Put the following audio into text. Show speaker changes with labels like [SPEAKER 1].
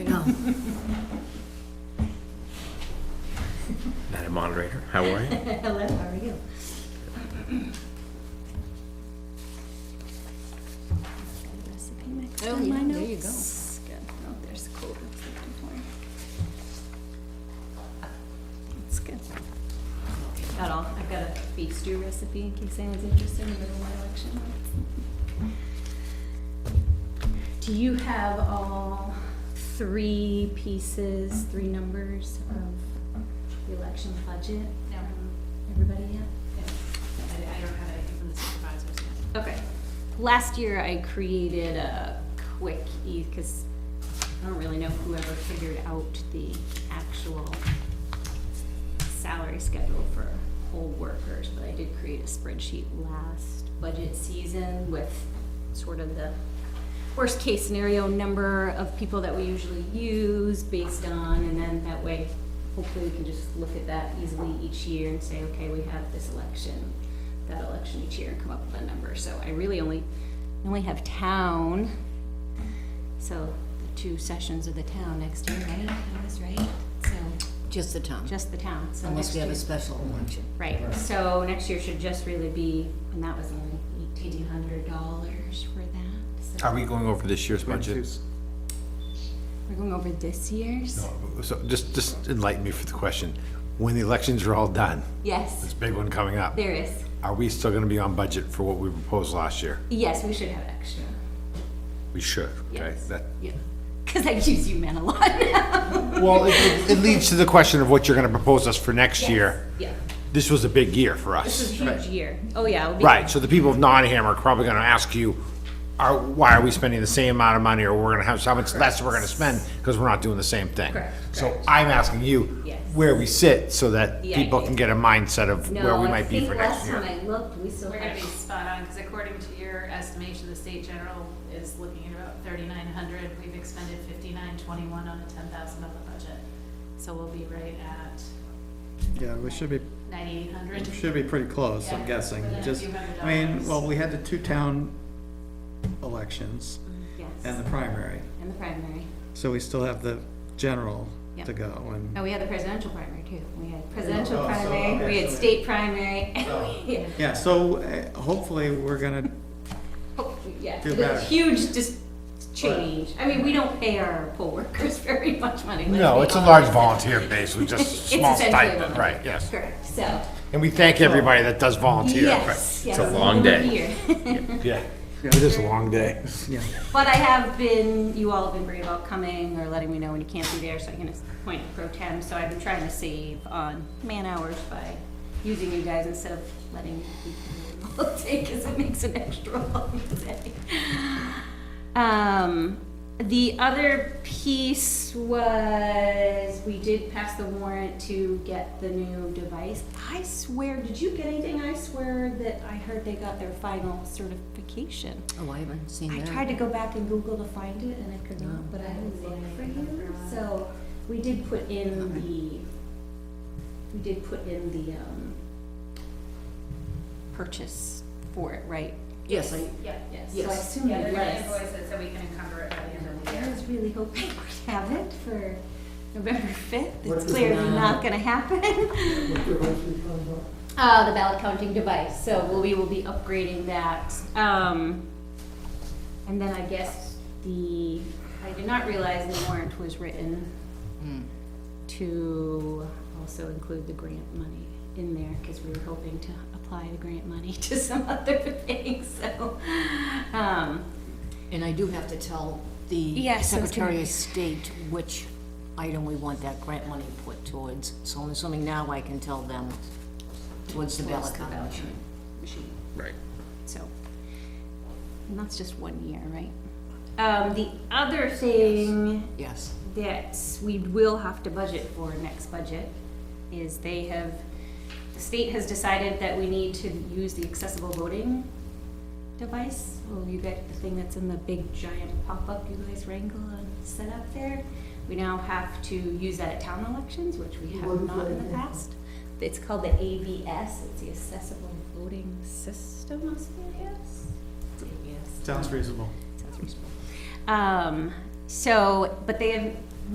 [SPEAKER 1] No.
[SPEAKER 2] Madam Moderator, how are you?
[SPEAKER 1] Hello, how are you?
[SPEAKER 3] Recipe next
[SPEAKER 1] Oh,
[SPEAKER 3] on
[SPEAKER 1] yeah,
[SPEAKER 3] my
[SPEAKER 1] there you
[SPEAKER 3] notes. Good, oh, there's cool, that's what I'm doing. That's good.
[SPEAKER 1] At all. I've got a beef stew recipe in case anyone's interested in the middle of my election. Do you have all three pieces, three numbers of the election budget?
[SPEAKER 4] No.
[SPEAKER 1] Everybody yet?
[SPEAKER 4] I, I don't have anything from the supervisors yet.
[SPEAKER 1] Okay. Last year I created a quick e, because I don't really know whoever figured out the actual salary schedule for whole workers, but I did create a spreadsheet last budget season with sort of the worst case scenario number of people that we usually use based on, and then that way, hopefully we can just look at that easily each year and say, okay, we have this election, that election each year, and come up with a number, so I really only, I only have town, so the two sessions of the town next year, right, that was right, so,
[SPEAKER 5] Just the town,
[SPEAKER 1] just the town, so
[SPEAKER 5] unless
[SPEAKER 1] next
[SPEAKER 5] we have
[SPEAKER 1] year-
[SPEAKER 5] a special election.
[SPEAKER 1] Right, so next year should just really be, and that was only eighteen hundred dollars for that, so
[SPEAKER 2] Are we going over this year's budget?
[SPEAKER 1] we're going over this year's?
[SPEAKER 2] So just, just enlighten me for the question. When the elections are all done,
[SPEAKER 1] Yes,
[SPEAKER 2] this big one coming up,
[SPEAKER 1] there is.
[SPEAKER 2] are we still gonna be on budget for what we proposed last year?
[SPEAKER 1] Yes, we should have extra.
[SPEAKER 2] We should, okay?
[SPEAKER 1] Yes.
[SPEAKER 2] That,
[SPEAKER 1] Yeah. Because I use you man a lot now.
[SPEAKER 2] well, it, it leads to the question of what you're gonna propose us for next year.
[SPEAKER 1] Yeah.
[SPEAKER 2] This was a big year for
[SPEAKER 1] This
[SPEAKER 2] us.
[SPEAKER 1] is a huge year. Oh, yeah. it'll be-
[SPEAKER 2] Right, so the people of Nottingham are probably gonna ask you, are, why are we spending the same amount of money, or we're gonna have so much less we're gonna spend, because we're not doing the same thing.
[SPEAKER 1] Correct,
[SPEAKER 2] So I'm asking you
[SPEAKER 1] Yes.
[SPEAKER 2] where we sit, so that
[SPEAKER 1] Yeah,
[SPEAKER 2] people
[SPEAKER 1] yeah.
[SPEAKER 2] can get a mindset of
[SPEAKER 1] No,
[SPEAKER 2] where we
[SPEAKER 1] I
[SPEAKER 2] might be
[SPEAKER 1] think
[SPEAKER 2] for next year.
[SPEAKER 1] Last time I looked, we still
[SPEAKER 4] We're gonna
[SPEAKER 1] had,
[SPEAKER 4] be spot on, because according to your estimation, the state general is looking at about thirty-nine hundred. We've expended fifty-nine twenty-one on a ten thousand dollar budget. So we'll be right at
[SPEAKER 6] Yeah, we should be,
[SPEAKER 4] ninety-eight hundred.
[SPEAKER 6] should be pretty close, I'm
[SPEAKER 4] Yeah,
[SPEAKER 6] guessing,
[SPEAKER 4] within a
[SPEAKER 6] just,
[SPEAKER 4] few hundred
[SPEAKER 6] I mean,
[SPEAKER 4] dollars.
[SPEAKER 6] well, we had the two town elections and
[SPEAKER 1] yes,
[SPEAKER 6] the primary,
[SPEAKER 1] in the primary.
[SPEAKER 6] so we still have the general
[SPEAKER 1] Yeah.
[SPEAKER 6] to go, and,
[SPEAKER 1] No, Oh, we had the presidential primary too. We had presidential
[SPEAKER 6] Oh, so,
[SPEAKER 1] primary,
[SPEAKER 6] okay,
[SPEAKER 1] we had
[SPEAKER 6] so-
[SPEAKER 1] state primary.
[SPEAKER 2] Oh.
[SPEAKER 1] Yeah.
[SPEAKER 6] yeah, so uh, hopefully, we're gonna,
[SPEAKER 1] Oh, Yeah,
[SPEAKER 6] Feel
[SPEAKER 1] the
[SPEAKER 6] better.
[SPEAKER 1] huge just change. I mean, we don't pay our poll workers very much money. let's
[SPEAKER 2] No,
[SPEAKER 1] be
[SPEAKER 2] it's a
[SPEAKER 1] honest.
[SPEAKER 2] large volunteer base, with just
[SPEAKER 1] It's
[SPEAKER 2] small
[SPEAKER 1] essentially
[SPEAKER 2] stipend,
[SPEAKER 1] one.
[SPEAKER 2] right, yes.
[SPEAKER 1] Correct, so,
[SPEAKER 2] And we thank everybody that does volunteer. right.
[SPEAKER 1] yes, yes.
[SPEAKER 2] a long
[SPEAKER 1] we're
[SPEAKER 2] day.
[SPEAKER 1] here.
[SPEAKER 2] Yeah, it is a long day.
[SPEAKER 6] yeah,
[SPEAKER 1] But I have been, you all have been great about coming or letting me know when you can't be there, so I can appoint pro tem. So I've been trying to save on man hours by using you guys instead of letting people take, because it makes an extra long day. Um, the other piece was, we did pass the warrant to get the new device. I swear, did you get anything? I swear that I heard they got their final certification.
[SPEAKER 5] Oh, I haven't seen
[SPEAKER 1] I
[SPEAKER 5] that. Oh.
[SPEAKER 1] tried to go back and Google to find it and I could not, but I haven't looked for you. So we did put in the, we did put in the, um, purchase for it, right?
[SPEAKER 5] Yes, I,
[SPEAKER 4] Yeah.
[SPEAKER 1] Yes. So I
[SPEAKER 5] Yes.
[SPEAKER 1] assume
[SPEAKER 4] Yeah,
[SPEAKER 1] it
[SPEAKER 4] there's
[SPEAKER 1] was.
[SPEAKER 4] an invoice that said we can encumber it by the end of the
[SPEAKER 1] I
[SPEAKER 4] year.
[SPEAKER 1] was really hoping we'd have it for November fifth.
[SPEAKER 7] What
[SPEAKER 1] It's
[SPEAKER 7] is
[SPEAKER 1] clearly
[SPEAKER 5] that?
[SPEAKER 1] not gonna happen. Uh, the ballot counting device, so we'll- we will be upgrading that. Um, and then I guess the, I did not realize the warrant was written to also include the grant money in there, because we were hoping to apply the grant money to some other things, so, um,
[SPEAKER 5] and I do have to tell the
[SPEAKER 1] Yes, I was gonna-
[SPEAKER 5] Secretary of State which item we want that grant money put towards. So I'm assuming now I can tell them towards the ballot
[SPEAKER 1] the ballot
[SPEAKER 5] college.
[SPEAKER 1] machine.
[SPEAKER 2] Right.
[SPEAKER 1] So, and that's just one year, right? Um, the other thing
[SPEAKER 5] Yes.
[SPEAKER 1] that we will have to budget for next budget is they have, the state has decided that we need to use the accessible voting device. Oh, you get the thing that's in the big giant pop-up you guys wrangle and set up there. We now have to use that at town elections, which we have not in the past. It's called the AVS, it's the Accessible Voting System, I suppose. It's AVS.
[SPEAKER 6] sounds reasonable.
[SPEAKER 1] Sounds reasonable. Um, so, but they have